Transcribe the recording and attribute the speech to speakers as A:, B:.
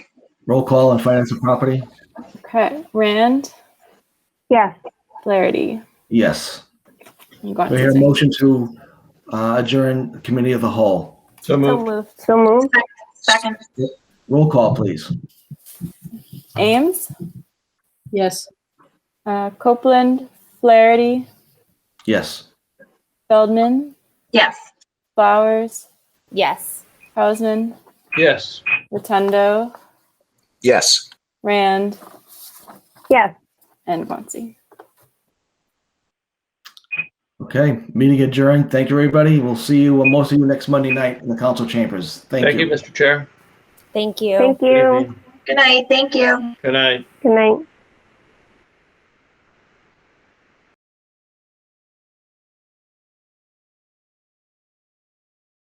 A: Roll call on finance and property?
B: Okay, Rand,
C: Yes.
B: Flaherty.
A: Yes.
B: You got
A: We hear a motion to uh, adjourn committee of the whole.
D: So
B: So
D: moved.
B: moved.
C: So moved.
E: Second,
A: Roll call, please.
B: Ames,
F: Yes.
B: uh, Copeland, Flaherty,
A: Yes.
B: Feldman,
E: yes.
B: Flowers,
G: Yes.
B: Hausman,
D: Yes.
B: Rotundo,
H: Yes.
B: Rand,
C: Yes.
B: and Guanxi.
A: Okay, meeting adjourned. Thank you, everybody. We'll see you, well, most of you next Monday night in the council chambers. Thank you.
D: Mr. Chair.
G: Thank you.
C: Thank
D: Good
C: you.
D: evening.
E: Good night, thank you.
D: Good night.
C: Good night.